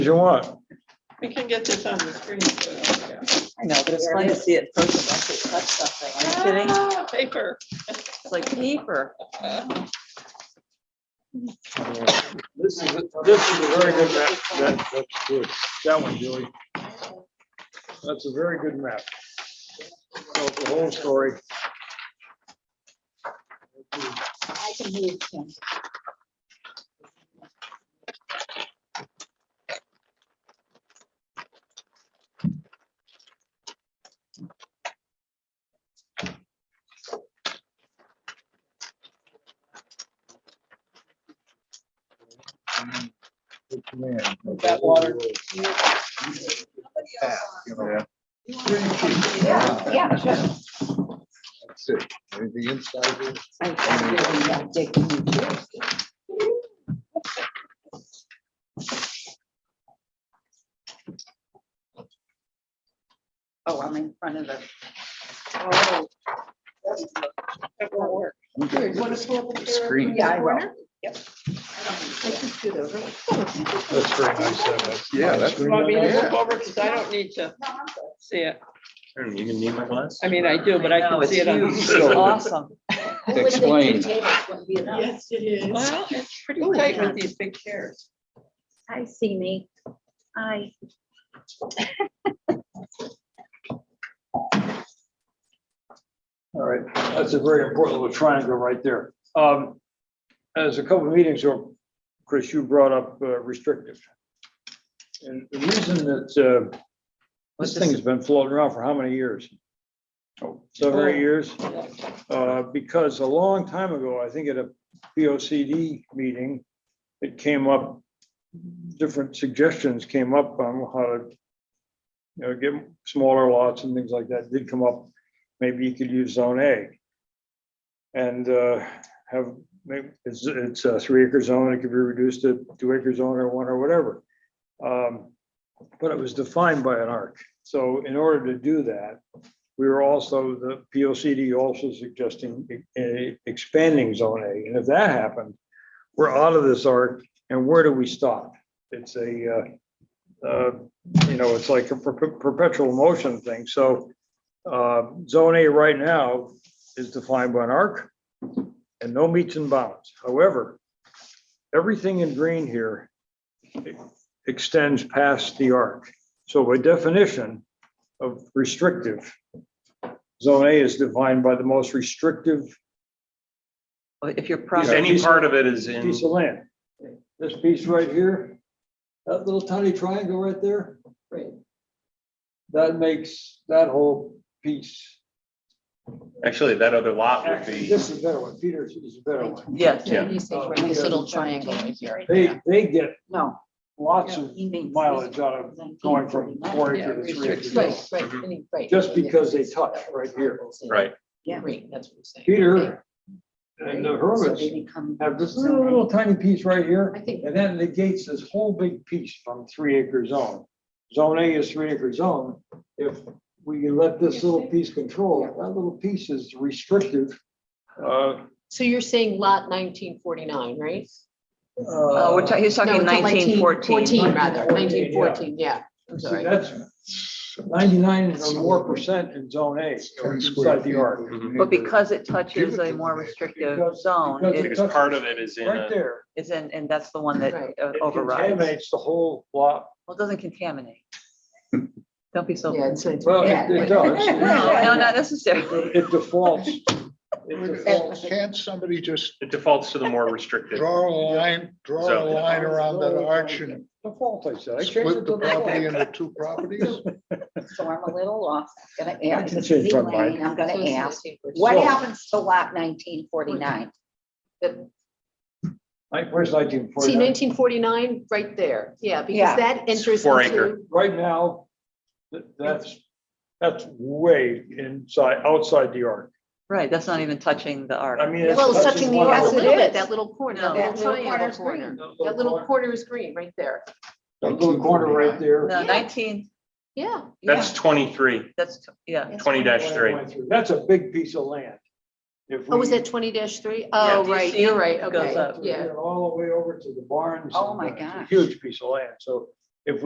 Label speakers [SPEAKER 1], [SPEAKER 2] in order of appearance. [SPEAKER 1] you want.
[SPEAKER 2] We can get this on the screen. so, yeah.
[SPEAKER 3] I know, but it's fun to see it in person, actually touch something. Are you kidding?
[SPEAKER 2] Ah, Paper.
[SPEAKER 3] It's like paper.
[SPEAKER 1] This is, this is a very good map. That, that's good. That one, Julie. That's a very good map. Tells the whole story.
[SPEAKER 4] I can hear Tim.
[SPEAKER 1] Good man.
[SPEAKER 2] That water.
[SPEAKER 1] Yeah, you know.
[SPEAKER 4] Yeah, sure.
[SPEAKER 1] That's it. Anything inside here?
[SPEAKER 4] I can hear him that dick. Oh, I'm in front of the.
[SPEAKER 2] Oh. That won't work.
[SPEAKER 5] Screen.
[SPEAKER 4] Yeah, I will. Yep. I just do the really-
[SPEAKER 1] That's very nice. uh, that's-
[SPEAKER 5] Yeah, that's-
[SPEAKER 2] You want me to
[SPEAKER 5] Yeah.
[SPEAKER 2] move over? Because I don't need to see it.
[SPEAKER 5] Aaron, You gonna need my glass?
[SPEAKER 2] I mean, I do, but I
[SPEAKER 3] know,
[SPEAKER 2] can
[SPEAKER 3] it's
[SPEAKER 2] see it on.
[SPEAKER 3] huge. It's awesome.
[SPEAKER 4] I would think two
[SPEAKER 5] Explain.
[SPEAKER 4] tables wouldn't be enough.
[SPEAKER 2] it is. Well, it's pretty
[SPEAKER 4] Oh,
[SPEAKER 2] tight
[SPEAKER 4] yeah.
[SPEAKER 2] with these big chairs.
[SPEAKER 6] Hi, see me. Hi.
[SPEAKER 1] All right, that's a very important little triangle right there. Um, as a couple of meetings ago, Chris, you brought up uh, restrictive. And the reason that, uh, this thing has been floating around for how many years? Seven or eight years? Uh, because a long time ago, I think at a P O C D meeting, it came up, different suggestions came up on how to, you know, get smaller lots and things like that did come up maybe you could use zone A. And uh, have, maybe, it's, it's a three acre zone, it could be reduced to two acre zone or one or whatever. Um, But it was defined by an arc, so in order to do that, we were also, the P O C D also suggesting eh, expanding zone A, and if that happened, we're out of this arc, and where do we stop? It's a, uh, uh, you know, it's like a per- perpetual motion thing, so uh, Zone A right now is defined by an arc and no meets and bounds. However, everything in green here extends past the arc. So by definition of restrictive, Zone A is defined by the most restrictive
[SPEAKER 3] If you're
[SPEAKER 5] Because
[SPEAKER 3] property,
[SPEAKER 5] Any part of it is in,
[SPEAKER 1] piece of land. This piece right here, that little tiny triangle right there. That makes that whole piece.
[SPEAKER 5] actually, that other lot would be,
[SPEAKER 1] This is a better one. Peter's is a better one.
[SPEAKER 3] yes,
[SPEAKER 5] Yeah.
[SPEAKER 4] This little triangle right here.
[SPEAKER 1] They, they get
[SPEAKER 4] No.
[SPEAKER 1] lots of
[SPEAKER 4] he means
[SPEAKER 1] mileage out of going from four
[SPEAKER 2] Yeah,
[SPEAKER 1] acre to three
[SPEAKER 2] restricted.
[SPEAKER 1] acre.
[SPEAKER 4] Right, right, any- right.
[SPEAKER 1] Just because they touch right here.
[SPEAKER 5] right,
[SPEAKER 4] Yeah, right, that's what I'm saying.
[SPEAKER 1] Peter and the
[SPEAKER 4] So
[SPEAKER 1] hermits
[SPEAKER 4] they become
[SPEAKER 1] have this
[SPEAKER 4] zone
[SPEAKER 1] little
[SPEAKER 4] A.
[SPEAKER 1] little tiny piece right
[SPEAKER 4] I
[SPEAKER 1] here,
[SPEAKER 4] think,
[SPEAKER 1] and that negates this whole big piece from three acre zone. Zone A is three acre zone. If we let this little piece control, that little piece is restrictive. Uh,
[SPEAKER 7] So you're saying lot nineteen forty-nine, right?
[SPEAKER 3] Uh, we're
[SPEAKER 1] uh,
[SPEAKER 3] ta- he's talking
[SPEAKER 7] No, it's not
[SPEAKER 3] nineteen fourteen.
[SPEAKER 7] Fourteen, rather,
[SPEAKER 1] 1914,
[SPEAKER 7] nineteen
[SPEAKER 1] yeah.
[SPEAKER 7] fourteen, yeah. I'm
[SPEAKER 1] See,
[SPEAKER 7] sorry.
[SPEAKER 1] that's ninety-nine or more percent in zone A, or inside the arc.
[SPEAKER 3] But because it touches a more restrictive
[SPEAKER 1] Because-
[SPEAKER 3] zone,
[SPEAKER 1] because
[SPEAKER 3] it
[SPEAKER 5] because part of it is in,
[SPEAKER 1] Right
[SPEAKER 5] a-
[SPEAKER 1] there.
[SPEAKER 3] is in, and that's the one that
[SPEAKER 7] Right.
[SPEAKER 3] uh,
[SPEAKER 1] it
[SPEAKER 3] overrides. Well,
[SPEAKER 1] Contaminates the whole lot.
[SPEAKER 3] it doesn't contaminate. Don't be so.
[SPEAKER 7] Yeah,
[SPEAKER 3] No,
[SPEAKER 7] it's, it's.
[SPEAKER 1] Well,
[SPEAKER 4] it- it
[SPEAKER 3] no, not necessarily.
[SPEAKER 1] It defaults. It defaults.
[SPEAKER 5] Can't somebody just? It defaults to the more restricted.
[SPEAKER 8] Draw a line, draw a
[SPEAKER 5] Zone.
[SPEAKER 8] line around that arch and
[SPEAKER 1] Default, I said. I changed it
[SPEAKER 8] split
[SPEAKER 1] to
[SPEAKER 8] the property
[SPEAKER 1] default.
[SPEAKER 8] into two properties?
[SPEAKER 4] so I'm a little lost. I'm gonna
[SPEAKER 1] I
[SPEAKER 4] ask,
[SPEAKER 1] can
[SPEAKER 4] it's
[SPEAKER 1] change my
[SPEAKER 4] Elaine,
[SPEAKER 1] mind.
[SPEAKER 4] I'm
[SPEAKER 7] So
[SPEAKER 4] gonna
[SPEAKER 7] it's
[SPEAKER 4] ask,
[SPEAKER 7] 1914.
[SPEAKER 4] what
[SPEAKER 1] So-
[SPEAKER 4] happens to lot nineteen forty-nine?
[SPEAKER 1] Like, Where's nineteen
[SPEAKER 7] See
[SPEAKER 1] forty-nine?
[SPEAKER 7] nineteen forty-nine right there, yeah,
[SPEAKER 4] Yeah.
[SPEAKER 7] because that enters
[SPEAKER 5] Four acre.
[SPEAKER 7] into.
[SPEAKER 1] Right now, th- that's, that's way inside, outside the arc.
[SPEAKER 3] Right, that's not even touching the arc.
[SPEAKER 1] I mean, it's
[SPEAKER 7] Well, it's
[SPEAKER 1] touching
[SPEAKER 7] touching the
[SPEAKER 1] one
[SPEAKER 7] yard a
[SPEAKER 4] Yes, it
[SPEAKER 7] little
[SPEAKER 4] is.
[SPEAKER 7] bit, that little corner, that
[SPEAKER 3] No.
[SPEAKER 7] little
[SPEAKER 4] That little
[SPEAKER 7] triangle
[SPEAKER 4] corner's green.
[SPEAKER 7] corner.
[SPEAKER 1] little
[SPEAKER 7] That little
[SPEAKER 1] corner-
[SPEAKER 7] corner is green right there,
[SPEAKER 1] that Little corner right there.
[SPEAKER 3] No, nineteen,
[SPEAKER 7] yeah.
[SPEAKER 3] yeah,
[SPEAKER 5] That's twenty-three,
[SPEAKER 3] that's, t- yeah.
[SPEAKER 5] twenty dash three.
[SPEAKER 1] That's a big piece of land. If
[SPEAKER 7] Oh, was
[SPEAKER 1] we-
[SPEAKER 7] that twenty three? Oh,
[SPEAKER 3] Do you
[SPEAKER 7] right,
[SPEAKER 3] see
[SPEAKER 7] you're
[SPEAKER 3] it?
[SPEAKER 7] right,
[SPEAKER 3] It goes
[SPEAKER 7] okay,
[SPEAKER 3] up.
[SPEAKER 7] yeah.
[SPEAKER 1] All the way over to the barns. and,
[SPEAKER 4] Oh my
[SPEAKER 1] uh, it's a
[SPEAKER 4] gosh.
[SPEAKER 1] Huge piece of land, so